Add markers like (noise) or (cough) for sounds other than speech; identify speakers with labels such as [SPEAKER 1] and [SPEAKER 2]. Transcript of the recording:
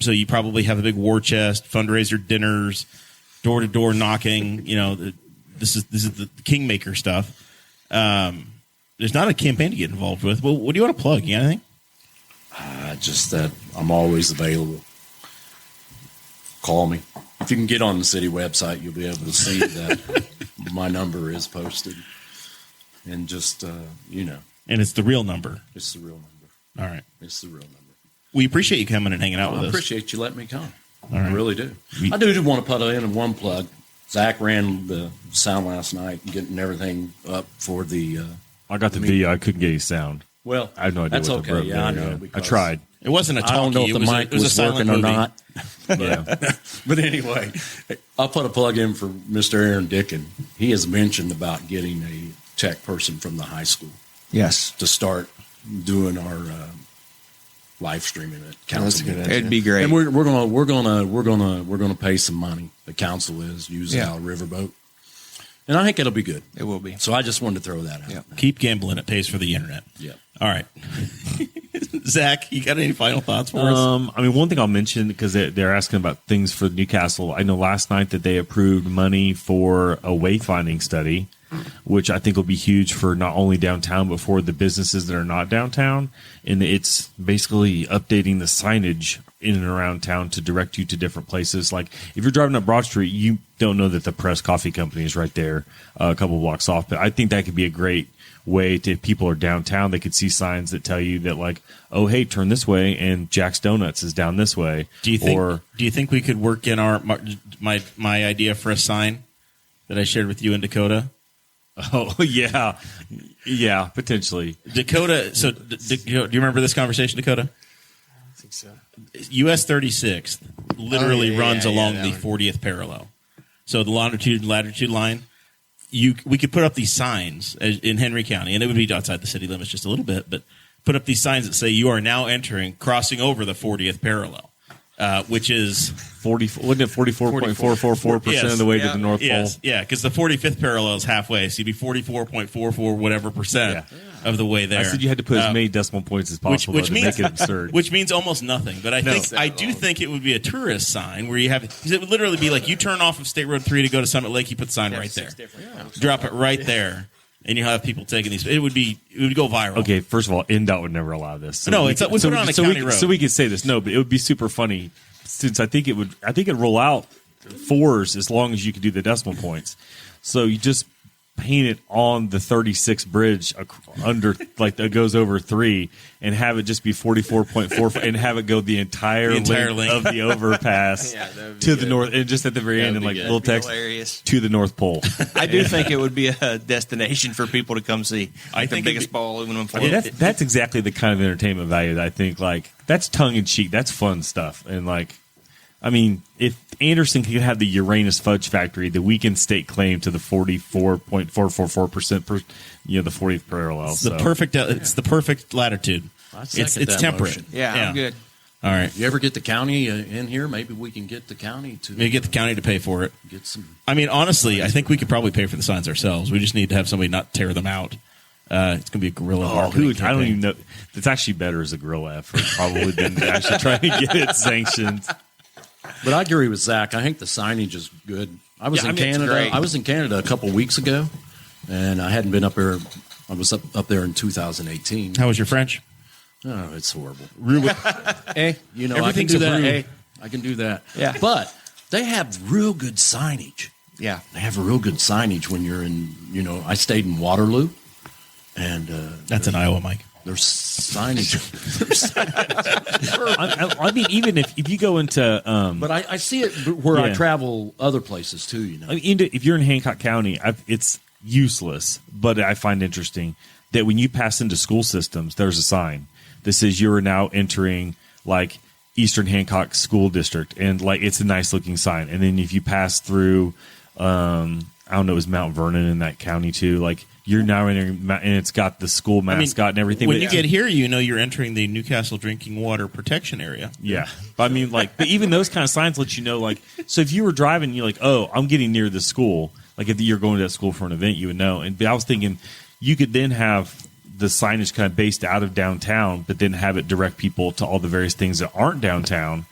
[SPEAKER 1] so you probably have a big war chest, fundraiser dinners, door to door knocking. You know, the, this is this is the kingmaker stuff. Um, there's not a campaign to get involved with. Well, what do you want to plug? You got anything?
[SPEAKER 2] Uh, just that I'm always available. Call me. If you can get on the city website, you'll be able to
[SPEAKER 3] (laughs)
[SPEAKER 2] see that my number is posted. And just, uh, you know,
[SPEAKER 1] And it's the real number.
[SPEAKER 2] it's the real number.
[SPEAKER 1] All right.
[SPEAKER 2] It's the real number.
[SPEAKER 1] We appreciate you coming and hanging out with
[SPEAKER 2] I
[SPEAKER 1] us.
[SPEAKER 2] appreciate you letting me come.
[SPEAKER 1] right.
[SPEAKER 2] I really do.
[SPEAKER 1] We-
[SPEAKER 2] I do just want to put in one plug. Zach ran the sound last night, getting everything up for the. Uh,
[SPEAKER 3] I got the video. I couldn't get any sound.
[SPEAKER 2] well,
[SPEAKER 3] I have no idea
[SPEAKER 2] That's
[SPEAKER 3] what
[SPEAKER 2] okay.
[SPEAKER 3] the broke
[SPEAKER 2] yeah, I
[SPEAKER 3] there,
[SPEAKER 2] know.
[SPEAKER 3] I
[SPEAKER 2] because
[SPEAKER 3] tried.
[SPEAKER 1] It wasn't a talkie.
[SPEAKER 2] I don't know if
[SPEAKER 1] it
[SPEAKER 2] the
[SPEAKER 1] was a-
[SPEAKER 2] mic
[SPEAKER 1] it was,
[SPEAKER 2] was,
[SPEAKER 1] a silent
[SPEAKER 2] working or
[SPEAKER 1] movie.
[SPEAKER 2] (laughs) not.
[SPEAKER 3] Yeah.
[SPEAKER 4] (laughs)
[SPEAKER 2] But anyway, I'll put a plug in for Mr. Aaron Dickin. He has mentioned about getting a tech person from the high school
[SPEAKER 4] Yes.
[SPEAKER 2] to start doing our uh, live streaming at council.
[SPEAKER 4] that's a good
[SPEAKER 2] meetings.
[SPEAKER 4] idea. It'd be great.
[SPEAKER 2] And we're, we're gonna we're gonna we're gonna we're gonna pay some money. The council is using
[SPEAKER 4] Yeah.
[SPEAKER 2] our riverboat, and I think it'll be good.
[SPEAKER 4] It will be.
[SPEAKER 2] So I just wanted to throw that out.
[SPEAKER 4] Yeah.
[SPEAKER 1] Keep gambling. It pays for the internet.
[SPEAKER 2] Yeah.
[SPEAKER 1] All right. (laughs) Zach, you got any final thoughts for
[SPEAKER 2] Uh,
[SPEAKER 1] us?
[SPEAKER 3] Um, I mean, one thing I'll mention because they, they're asking about things for Newcastle. I know last night that they approved money for a wayfinding study, which I think will be huge for not only downtown but for the businesses that are not downtown. And it's basically updating the signage in and around town to direct you to different places. Like if you're driving up Broad Street, you don't know that the Press Coffee Company is right there, uh, a couple blocks off. But I think that could be a great way to if people are downtown they could see signs that tell you that like oh hey turn this way and jack's donuts is down this way
[SPEAKER 1] Do you think?
[SPEAKER 3] or (laughs)
[SPEAKER 1] do you think we could work in our my my, my idea for a sign that I shared with you in Dakota?
[SPEAKER 3] oh yeah yeah potentially
[SPEAKER 1] Dakota. So, d- d- do you remember this conversation, Dakota?
[SPEAKER 4] I think so.
[SPEAKER 1] US 36 literally
[SPEAKER 4] Oh, yeah,
[SPEAKER 1] runs
[SPEAKER 4] yeah, yeah,
[SPEAKER 1] along
[SPEAKER 4] that
[SPEAKER 1] the
[SPEAKER 4] one.
[SPEAKER 1] 40th parallel. So the longitude and latitude line, you we could put up these signs as- in Henry County, and it would be outside the city limits just a little bit, but put up these signs that say you are now entering, crossing over the 40th parallel, uh, which is
[SPEAKER 3] 40 wasn't it 44.444 percent
[SPEAKER 1] Yes.
[SPEAKER 3] of the way
[SPEAKER 4] Yeah.
[SPEAKER 3] to the north
[SPEAKER 1] yes,
[SPEAKER 3] pole
[SPEAKER 1] yeah, because the 45th parallel is halfway, so you'd be 44.44 whatever percent of the way there.
[SPEAKER 3] i said you had to put as
[SPEAKER 1] Uh,
[SPEAKER 3] many decimal points as possible
[SPEAKER 1] which
[SPEAKER 3] to
[SPEAKER 1] means-
[SPEAKER 3] make it
[SPEAKER 1] (laughs)
[SPEAKER 3] absurd
[SPEAKER 1] which means almost nothing. But I think I do think it would be a tourist sign where you have 'cause it would literally be like you turn off of State Road Three to go to Summit Lake, you put the sign right there, drop it right there, and you will have people taking these. It would be it would go viral.
[SPEAKER 3] Okay, first of all, NDOT would never allow this. So
[SPEAKER 1] No, it's- we put it on a
[SPEAKER 3] so
[SPEAKER 1] county
[SPEAKER 3] we,
[SPEAKER 1] road.
[SPEAKER 3] So we could say this. No, but it would be super funny since I think it would. I think it'd roll out fours as long as you could do the decimal points. So you just paint it on the 36 bridge ac- under like that goes over three and have it just be 44.4 and have it go the entire,
[SPEAKER 1] The entire
[SPEAKER 3] length,
[SPEAKER 1] length.
[SPEAKER 3] of the overpass
[SPEAKER 4] (laughs) Yeah, that would be
[SPEAKER 3] to the
[SPEAKER 4] good.
[SPEAKER 3] north and just at the very
[SPEAKER 4] That
[SPEAKER 3] end
[SPEAKER 4] would
[SPEAKER 3] and
[SPEAKER 4] be
[SPEAKER 3] like
[SPEAKER 4] good.
[SPEAKER 3] little
[SPEAKER 4] That'd
[SPEAKER 3] text
[SPEAKER 4] be hilarious.
[SPEAKER 3] to the north
[SPEAKER 4] (laughs)
[SPEAKER 3] pole
[SPEAKER 4] I do think it would be a destination for people to come see.
[SPEAKER 1] I
[SPEAKER 4] Like
[SPEAKER 1] think
[SPEAKER 4] the
[SPEAKER 1] it'd
[SPEAKER 4] biggest
[SPEAKER 1] be-
[SPEAKER 4] ball aluminum
[SPEAKER 3] I
[SPEAKER 4] foil.
[SPEAKER 3] mean, that's that's exactly the kind of entertainment value that I think like that's tongue in cheek. That's fun stuff. And like, I mean, if Anderson could have the Uranus Fudge Factory, the we can stake claim to the forty four point four four four percent per you know the fortieth parallel.
[SPEAKER 1] it's
[SPEAKER 3] so.
[SPEAKER 1] the perfect uh, it's the perfect latitude.
[SPEAKER 2] I second
[SPEAKER 1] It's it's
[SPEAKER 2] that
[SPEAKER 1] temperate.
[SPEAKER 2] motion.
[SPEAKER 4] yeah, I'm good.
[SPEAKER 1] All right,
[SPEAKER 2] You ever get the county uh, in here? Maybe we can get the county to
[SPEAKER 1] maybe get the county to pay for it.
[SPEAKER 2] get some.
[SPEAKER 1] I mean, honestly, I think we could probably pay for the signs ourselves. We just need to have somebody not tear them out. Uh, it's going to be a guerrilla.
[SPEAKER 3] Oh,
[SPEAKER 1] marketing
[SPEAKER 3] who, I don't
[SPEAKER 1] campaign.
[SPEAKER 3] even know. It's actually better as a guerrilla effort, probably than actually trying to get
[SPEAKER 1] (laughs)
[SPEAKER 3] it sanctioned.
[SPEAKER 2] But I agree with Zach. I think the signage is good. I was
[SPEAKER 4] Yeah, I
[SPEAKER 2] in
[SPEAKER 4] mean, it's
[SPEAKER 2] Canada.
[SPEAKER 4] great.
[SPEAKER 2] I was in Canada a couple weeks ago, and I hadn't been up there. I was up, up there in 2018.
[SPEAKER 1] How was your French?
[SPEAKER 2] Oh, it's horrible. (laughs)
[SPEAKER 4] Hey,
[SPEAKER 2] You know,
[SPEAKER 1] Everything's a
[SPEAKER 2] I can do that.
[SPEAKER 1] brew.
[SPEAKER 2] Hey, I can do that.
[SPEAKER 4] Yeah.
[SPEAKER 2] But they have real good signage.
[SPEAKER 4] yeah.
[SPEAKER 2] They have real good signage when you're in. You know, I stayed in Waterloo, and uh,
[SPEAKER 1] That's an Iowa, Mike.
[SPEAKER 2] there's signage.
[SPEAKER 3] I, I, I mean, even if, if you go into um,
[SPEAKER 2] but I, I see it where I
[SPEAKER 3] Yeah.
[SPEAKER 2] travel other places too. You know,
[SPEAKER 3] I mean, into- if you're in Hancock County, i it's useless, but I find interesting that when you pass into school systems, there's a sign that says you are now entering like Eastern Hancock School District, and like it's a nice looking sign. And then if you pass through, um, I don't know, is Mount Vernon in that county too? Like you're now entering, Mount- and it's got the school
[SPEAKER 1] I mean,
[SPEAKER 3] mascot and everything.
[SPEAKER 1] When
[SPEAKER 3] but
[SPEAKER 1] you
[SPEAKER 3] it's-
[SPEAKER 1] get here, you know you're entering the Newcastle Drinking Water Protection Area.
[SPEAKER 3] Yeah. But I mean, like, but even those kind of signs let you know, like, so if you were driving, you're like, oh, I'm getting near the school. Like, if you're going to that school for an event, you would know. And but I was thinking you could then have the signage kind of based out of downtown, but then have it direct people to all the various things that aren't downtown